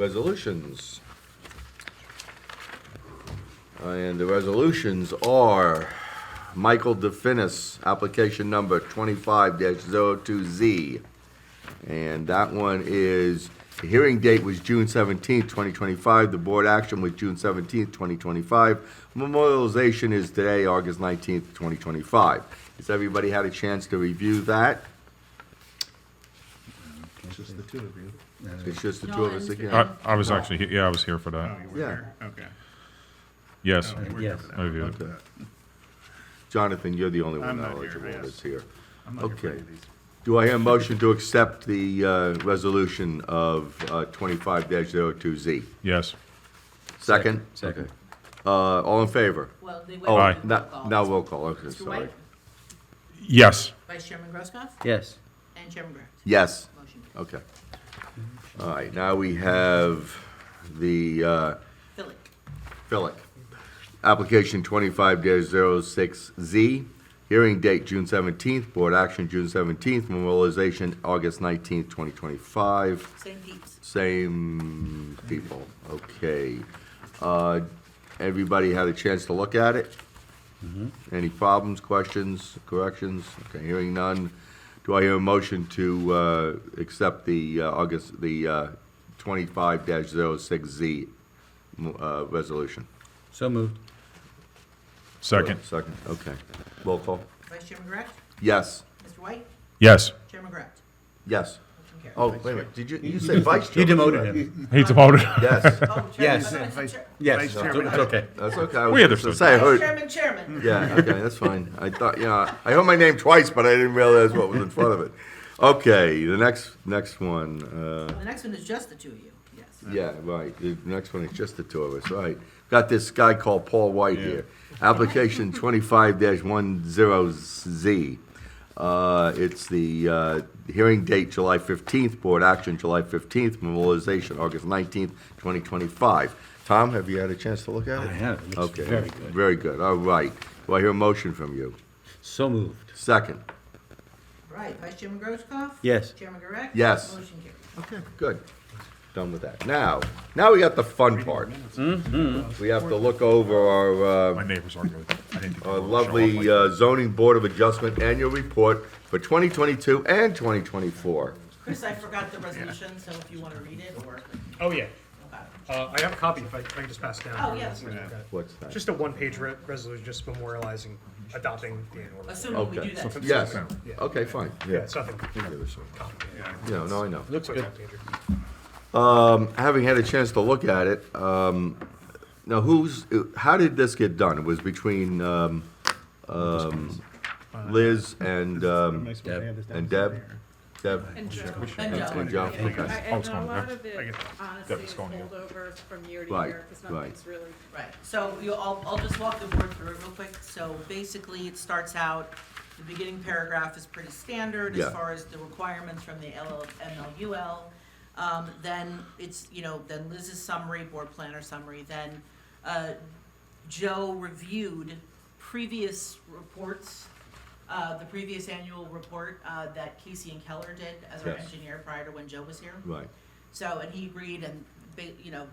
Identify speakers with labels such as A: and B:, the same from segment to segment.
A: resolutions. And the resolutions are Michael DeFinis, application number twenty-five 2 Z. And that one is, the hearing date was June seventeenth, twenty twenty-five, the board action was June seventeenth, twenty twenty-five. Memorialization is today, August nineteenth, twenty twenty-five. Has everybody had a chance to review that?
B: It's just the two of you.
A: It's just the two of us
C: No,
A: again.
D: I, I was actually, he- yeah, I was here for
B: Oh,
D: that.
B: you were
A: Yeah.
B: there, okay.
D: Yes,
B: Oh, you were here
E: Yes.
B: for that.
D: I reviewed it.
A: Okay. Jonathan, you're the only one
B: I'm not here,
A: knowledgeable
B: yes.
A: that's here.
B: I'm not here for any
A: Okay.
B: of these.
A: Do I hear a motion to accept the uh, resolution of uh, twenty-five 2 Z?
D: Yes,
A: Second?
E: Second.
A: Okay. Uh, All in favor?
C: Well, they
A: Oh,
C: went to roll
A: no-
C: call.
A: Now roll call, okay,
C: Mr.
A: sorry.
C: White,
D: yes,
C: Vice Chairman Grosskopf,
E: Yes.
C: and Chairman Grant.
A: Yes,
C: Motion carries.
A: okay. All right, now we have the uh,
C: Philic.
A: Philic. Application twenty-five 6 Z. Hearing date June seventeenth, board action June seventeenth, memorialization August nineteenth, twenty twenty-five.
C: St. Pete's.
A: Same people, okay. Uh, Everybody had a chance to look at it? Any problems, questions, corrections? Okay, hearing none. Do I hear a motion to uh, accept the uh, August, the twenty-five 6 Z uh, resolution?
E: So moved.
D: second,
A: Second, okay. Roll call.
C: Vice Chairman Grant,
A: Yes,
C: Mr. White,
D: yes.
C: Chairman Grant.
A: yes.
C: Motion carries.
A: Oh, wait a minute, did you, you said vice chair?
E: You demoted him.
D: He demoted.
A: Yes,
C: Oh, Chairman,
E: Yes.
C: I thought you
B: Vice-
C: said Chair-
E: Yes,
B: Vice
E: it's
B: Chairman.
E: it's okay.
A: that's okay. I was
D: We
A: just
D: understood.
A: to say, I
C: Vice
A: heard.
C: Chairman, Chairman.
A: Yeah, okay, that's fine. I thought, yeah, I heard my name twice, but I didn't realize what was in front of it. Okay, the next, next one, uh,
C: The next one is just the two of you, yes.
A: yeah, right, the next one is just the two of us, right. Got this guy called Paul White here. Application twenty-five one zero Z. Uh, it's the, uh, hearing date July fifteenth, board action July fifteenth, memorialization August nineteenth, twenty twenty-five. Tom, have you had a chance to look at
E: I
A: it?
E: have. It looks
A: Okay.
E: very good.
A: Very good, all right. Do I hear a motion from you?
E: So moved.
A: Second.
C: Right, Vice Chairman Grosskopf?
E: Yes.
C: Chairman Grant?
A: Yes.
C: Motion carries.
A: Okay, good. Done with that. Now, now we got the fun part.
E: Mm-hmm.
A: We have to look over our,
D: My
A: uh,
D: neighbors argued with it. I didn't think they
A: our
D: would show up
A: lovely
D: like-
A: uh, zoning board of adjustment annual report for 2022 and 2024.
C: Chris, I forgot the resolution, so if you want to read it or,
F: Oh, yeah.
C: okay.
F: Uh, I have a copy if I, if I can just pass it down.
C: Oh, yes.
F: Okay.
A: What's that?
F: Just a one-page re- resolution, just memorializing, adopting the annual. report.
C: assuming we
A: Okay.
C: do that. tonight.
A: Yes,
F: Yeah.
A: okay, fine,
F: Yeah,
A: yeah.
F: it's nothing complicated.
A: Yeah, no, I know.
E: Looks
F: Quick
E: good.
F: one-pager.
A: Um, Having had a chance to look at it, um, now who's, how did this get done? It was between um, um, Liz and, um, and Deb? Deb?
G: And Joe.
C: And Joe.
A: And Joe,
G: I-
A: okay.
G: And
D: it's
G: a
D: going
G: lot
D: there.
G: of it honestly is
D: going here.
G: holdovers from year to
A: Right,
G: year, because
A: right.
G: nothing's really
C: Right, so you, I'll, I'll just walk the board through it real quick. So basically, it starts out, the beginning paragraph is pretty standard
A: Yeah.
C: as far as the requirements from the LL, MLUL. Um, then it's, you know, then Liz's summary, board planner summary, then, uh, Joe reviewed previous reports, uh, the previous annual report, uh, that Casey and Keller did as our
A: Yes.
C: engineer prior to when Joe was here.
A: Right,
C: So, and he agreed and, ba- you know,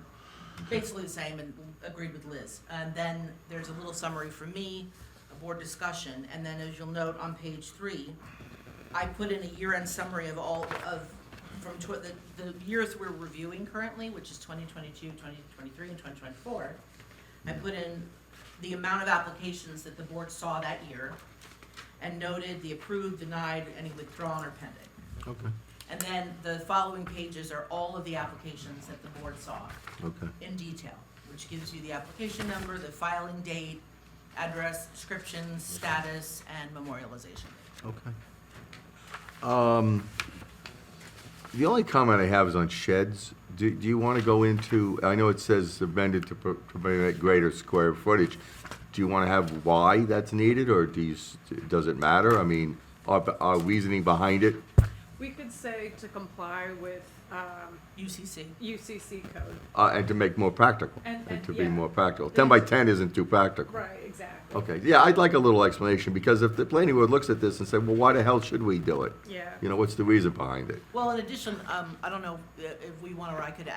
C: basically the same and agreed with Liz. And then there's a little summary from me, a board discussion, and then as you'll note on page three, I put in a year-end summary of all of, from tw- the, the years we're reviewing currently, which is 2022, 2023, and 2024. I put in the amount of applications that the board saw that year and noted the approved, denied, any withdrawn or pending.
A: okay,
C: And then the following pages are all of the applications that the board saw
A: okay.
C: in detail, which gives you the application number, the filing date, address, description, status, and memorialization.
A: Okay. Um, The only comment I have is on sheds. Do do you want to go into, I know it says amended to pro- to permit greater square footage. Do you want to have why that's needed, or do you, s- does it matter? I mean, our our reasoning behind it?
G: We could say to comply with um,
C: UCC.
G: UCC code.
A: Uh, And to make more practical,
G: And-
A: and
G: and,
A: to be
G: yeah.
A: more practical. 10 by 10 isn't too practical.
G: Right, exactly.
A: Okay, yeah, I'd like a little explanation, because if the planning board looks at this and say, well, why the hell should we do it?
G: Yeah.
A: You know, what's the reason behind it?
C: Well, in addition, um, I don't know uh, if we want, or I could